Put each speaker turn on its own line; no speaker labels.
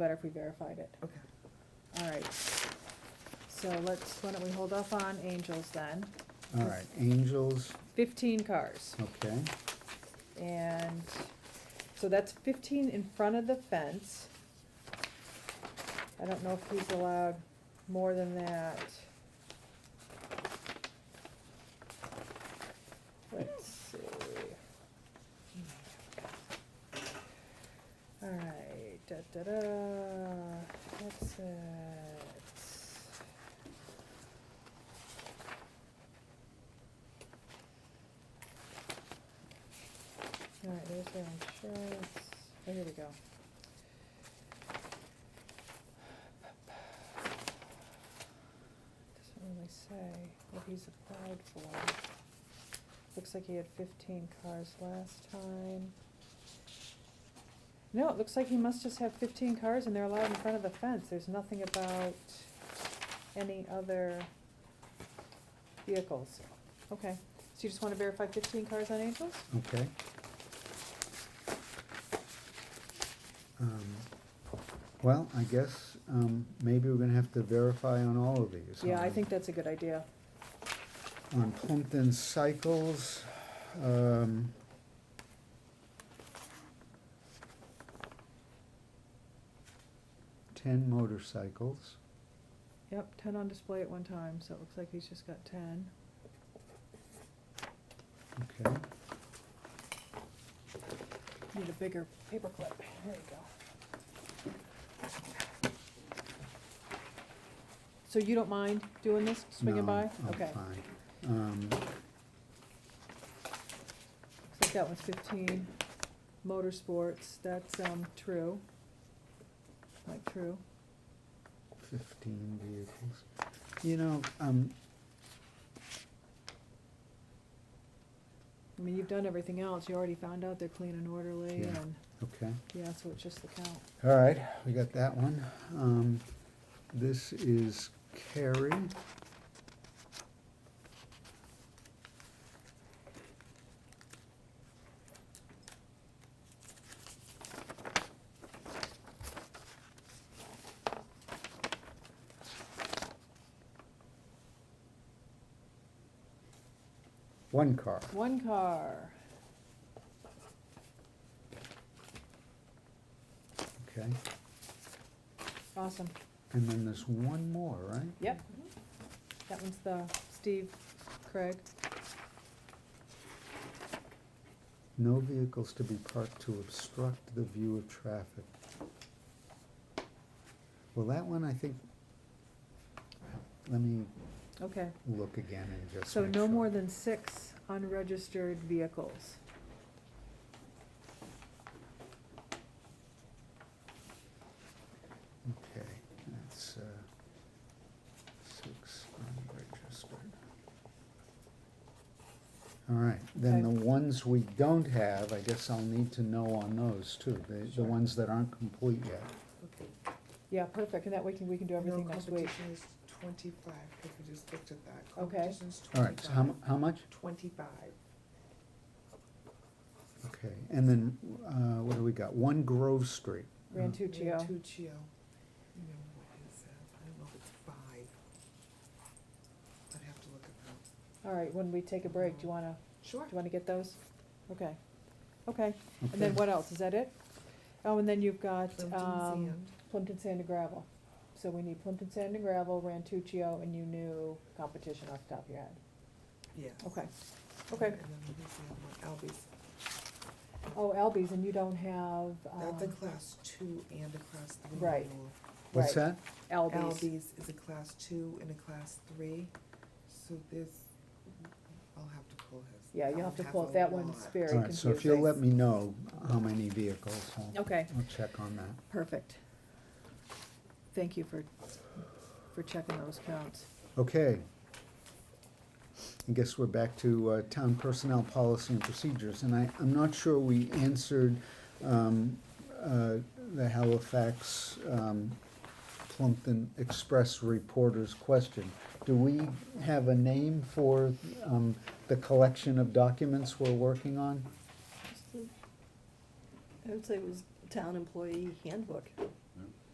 better if we verified it.
Okay.
All right. So let's, why don't we hold off on Angels then?
All right, Angels,
Fifteen cars.
okay,
And, so that's fifteen in front of the fence. I don't know if he's allowed more than that. Let's see. Alright, da da da, that's it. All right, there's their insurance. Oh, here we go. Doesn't really say what he's applied for. Looks like he had fifteen cars last time. No, it looks like he must just have fifteen cars and they're allowed in front of the fence. There's nothing about any other vehicles. Okay, so you just wanna verify fifteen cars on Angels?
okay. Um, Well, I guess, um, maybe we're gonna have to verify on all of these.
Yeah, I
Um,
think that's a good idea.
On Plimpton Cycles, um. Ten motorcycles,
Yep, ten on display at one time, so it looks like he's just got ten.
okay,
Need a bigger paperclip. There you go. So you don't mind doing this, swinging
No,
by?
I'm
Okay.
Oh, fine. Um,
Looks like that one's fifteen. Motorsports, that's, um, true. Like, true.
fifteen vehicles. You know, um,
I mean, you've done everything else. You already found out they're clean and orderly
Yeah.
and,
okay.
yeah, so it's just the count.
All right, we got that one. Um, this is Carrie. One car.
One car.
Okay,
Awesome.
and then there's one more, right?
Yep. That one's the Steve Craig.
No vehicles to be parked to obstruct the view of traffic. Well, that one, I think, let me
Okay.
look again and just
So
make
no
sure.
more than six unregistered vehicles.
Okay, that's, uh, six unregistered. All right, then the
Okay.
ones we don't have, I guess I'll need to know on those too, the, the
Sure.
ones that aren't complete yet.
Okay.
Yeah, perfect, and that way can, we can do everything next
No,
week.
competition is twenty-five, because we just looked at that.
Okay.
Competition's
All right, so how, mu-
25.
how much?
Twenty-five.
Okay, and then, uh, what do we got? One Grove Street.
Rantuccio,
Rantuccio. You know what it says, I don't know if it's five. I'd have to look at that.
all right, when we take a break, do you wanna,
Sure.
do you wanna get those? Okay, okay, and
Okay.
then what else, is that it? Oh, and then you've got,
Plimpton
um,
Sand.
Plimpton Sand and Gravel. So we need Plimpton Sand and Gravel, Rantuccio, and you knew competition off the top of your head.
Yes.
Okay, okay.
And then there's the other one, Albies.
Oh, Albies, and you don't have,
That's a
um,
class two and a class three.
Right.
renewal.
What's
right,
that?
Albies,
Albies is a class two and a class three, so this, I'll have to pull his.
yeah, you'll
I'll
have to pull,
a
it. that one's
lot.
very
All
confusing.
right, so if you'll let me know how many vehicles, I'll,
Okay.
I'll check on that.
Perfect. Thank you for, for checking those counts.
Okay. I guess we're back to uh, town personnel policy and procedures, and I, I'm not sure we answered um, uh, the Halifax um, Plumpton Express reporter's question. Do we have a name for um, the collection of documents we're working on?
I would say it was town employee handbook.